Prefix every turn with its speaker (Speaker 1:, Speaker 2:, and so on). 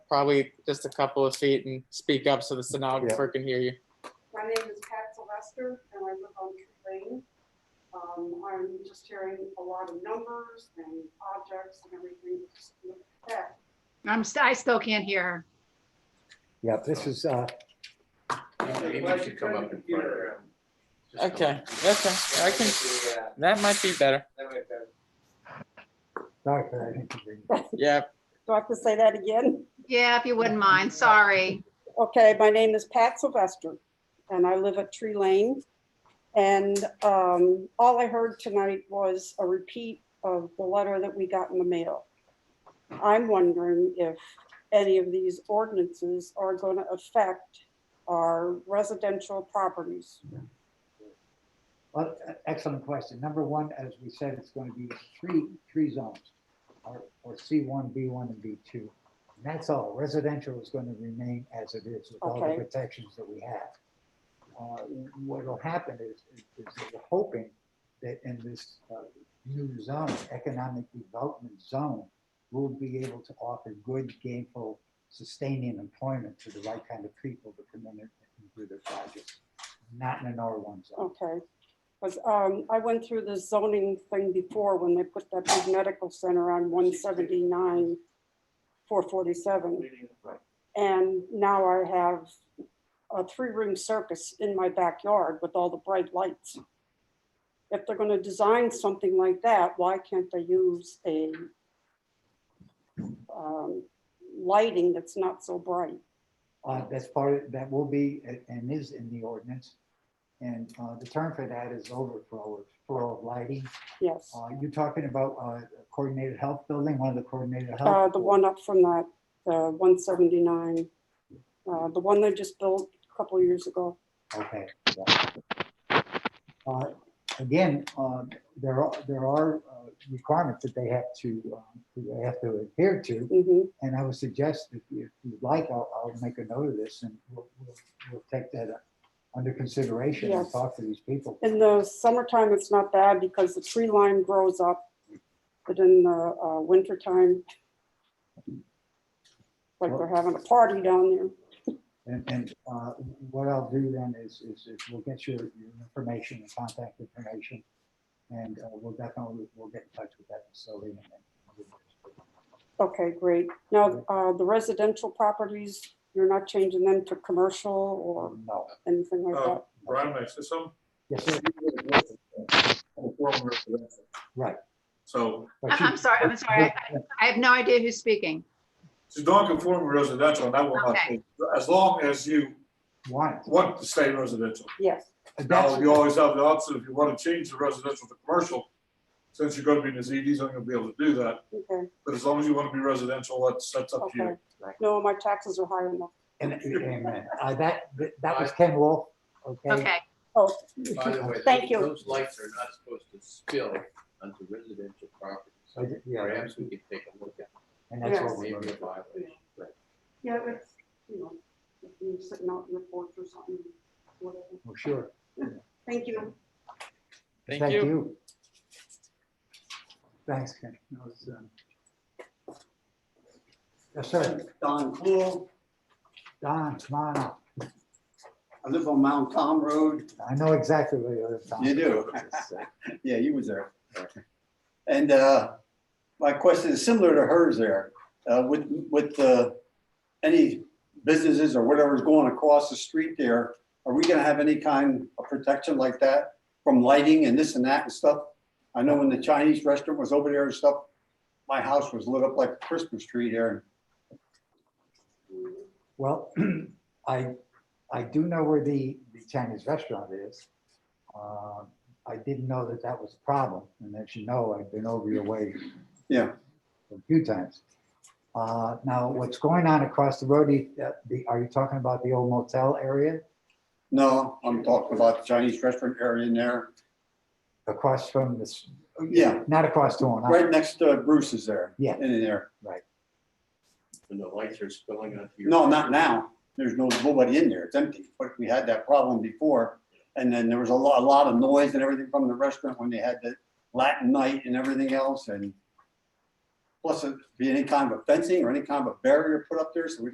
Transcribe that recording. Speaker 1: probably just a couple of feet and speak up so the stenographer can hear you.
Speaker 2: My name is Pat Sylvester, and I live on Tree Lane. Um, I'm just hearing a lot of numbers and objects and everything. Just look at that.
Speaker 3: I'm, st- I still can't hear her.
Speaker 4: Yeah, this is, uh,
Speaker 5: Maybe you should come up in front of her. Just come
Speaker 1: Okay,
Speaker 5: up.
Speaker 1: okay, I can,
Speaker 5: Yeah,
Speaker 1: that might be better.
Speaker 5: that might be-
Speaker 4: not, I think you can-
Speaker 1: Yeah,
Speaker 2: Do I have to say that again?
Speaker 3: Yeah, if you wouldn't mind, sorry.
Speaker 2: Okay, my name is Pat Sylvester, and I live at Tree Lane. And um, all I heard tonight was a repeat of the letter that we got in the mail. I'm wondering if any of these ordinances are going to affect our residential properties.
Speaker 6: Well, e- excellent question. Number one, as we said, it's going to be three, three zones, or, or C1, B1, and B2. And that's all. Residential is going to remain as it is with all
Speaker 2: Okay.
Speaker 6: the protections that we have. Uh, What'll happen is, is that we're hoping that in this uh, new zone, economic development zone, we'll be able to offer good gainful sustaining employment to the right kind of people to come in and do their projects, not in an R1 zone.
Speaker 2: Okay, because I went through the zoning thing before when they put that big medical center on 179, 447. And now I have a three-ring circus in my backyard with all the bright lights. If they're going to design something like that, why can't they use a um, lighting that's not so bright?
Speaker 6: Uh, that's part, of- that will be a- and is in the ordinance. And, uh, the term for that is overflow, or flow of lighting.
Speaker 2: Yes,
Speaker 6: Uh, you're talking about, uh, coordinated health building, one of the coordinated
Speaker 2: Uh,
Speaker 6: health.
Speaker 2: the one up from that, the 179, uh, the one they just built a couple years ago.
Speaker 6: Okay. yeah. Uh, Again, uh, there are, there are uh, requirements that they have to, um, they have to adhere to.
Speaker 2: Mhm.
Speaker 6: And I would suggest if you- if you'd like, I'll, I'll make a note of this and we'll, we'll, we'll take that uh, under consideration and
Speaker 2: Yes.
Speaker 6: talk to these people.
Speaker 2: In the summertime, it's not bad because the tree line grows up, but in the uh, wintertime, like they're having a party down there.
Speaker 6: And, and uh, what I'll do then is, is is we'll get your, your information and contact information. And uh, we'll definitely, we'll get in touch with that facility. and then-
Speaker 2: Okay, great. Now, uh, the residential properties, you're not changing them to commercial or
Speaker 6: No.
Speaker 2: anything
Speaker 7: Oh.
Speaker 2: like that?
Speaker 7: Brian, I said something.
Speaker 6: Yes, sir.
Speaker 7: Former residential.
Speaker 6: Right.
Speaker 7: So,
Speaker 6: But
Speaker 3: I-
Speaker 6: you-
Speaker 3: I'm sorry, Uh-huh. I'm sorry. I- I have no idea who's speaking.
Speaker 7: it's non-conforming residential, and that will not,
Speaker 3: Okay.
Speaker 7: change, as long as you
Speaker 6: Want.
Speaker 7: want to stay residential.
Speaker 2: Yes,
Speaker 7: Now,
Speaker 6: Uh, That's-
Speaker 7: you always have the option, if you want to change the residential to commercial, since you're gonna be in the ZD zone, you'll be able to do that,
Speaker 2: okay,
Speaker 7: but as long as you want to be residential, that's, that's up to
Speaker 2: okay.
Speaker 7: you.
Speaker 2: No, my taxes are high enough.
Speaker 6: and- Amen. Uh, That, that was Ken Wolf, okay?
Speaker 3: Okay,
Speaker 2: Oh,
Speaker 5: By the way,
Speaker 2: Thank you.
Speaker 5: those- those lights are not supposed to spill onto residential
Speaker 6: So,
Speaker 5: properties.
Speaker 6: Yeah,
Speaker 5: Perhaps we could take a look at
Speaker 6: and that's
Speaker 2: Yes.
Speaker 6: what
Speaker 5: maybe a
Speaker 6: we're.
Speaker 5: violation. but
Speaker 2: yeah, that's, you know, if you're sitting out in your porch or something, whatever.
Speaker 6: Well, sure.
Speaker 2: Thank you.
Speaker 1: thank you.
Speaker 6: Thanks, Ken. That was, um, Yes, sir.
Speaker 8: Don Cool.
Speaker 6: Don, come on up.
Speaker 8: I live on Mount Tom Road.
Speaker 6: I know exactly where you live, Don.
Speaker 8: You do?
Speaker 6: uh,
Speaker 8: Yeah, you was there. And uh, my question is similar to hers there. Uh, With, with uh, any businesses or whatever's going across the street there, are we gonna have any kind of protection like that from lighting and this and that and stuff? I know when the Chinese restaurant was over there and stuff, my house was lit up like a Christmas tree there.
Speaker 6: Well, I, I do know where the, the Chinese restaurant is. Um, I didn't know that that was a problem, and as you know, I've been over your way.
Speaker 8: Yeah.
Speaker 6: A few times. Uh, now, what's going on across the road, you- uh, the, are you talking about the old motel area
Speaker 8: No, I'm talking about the Chinese restaurant area in there,
Speaker 6: across from this?
Speaker 8: Yeah.
Speaker 6: Not across the one,
Speaker 8: right next to Bruce's there.
Speaker 6: Yeah.
Speaker 8: In there.
Speaker 5: When the lights are spilling onto your.
Speaker 8: No, not now. There's no, nobody in there. It's empty. But we had that problem before. And then there was a lot, a lot of noise and everything from the restaurant when they had the Latin night and everything else and Plus, it'd be any kind of fencing or any kind of a barrier put up there, so we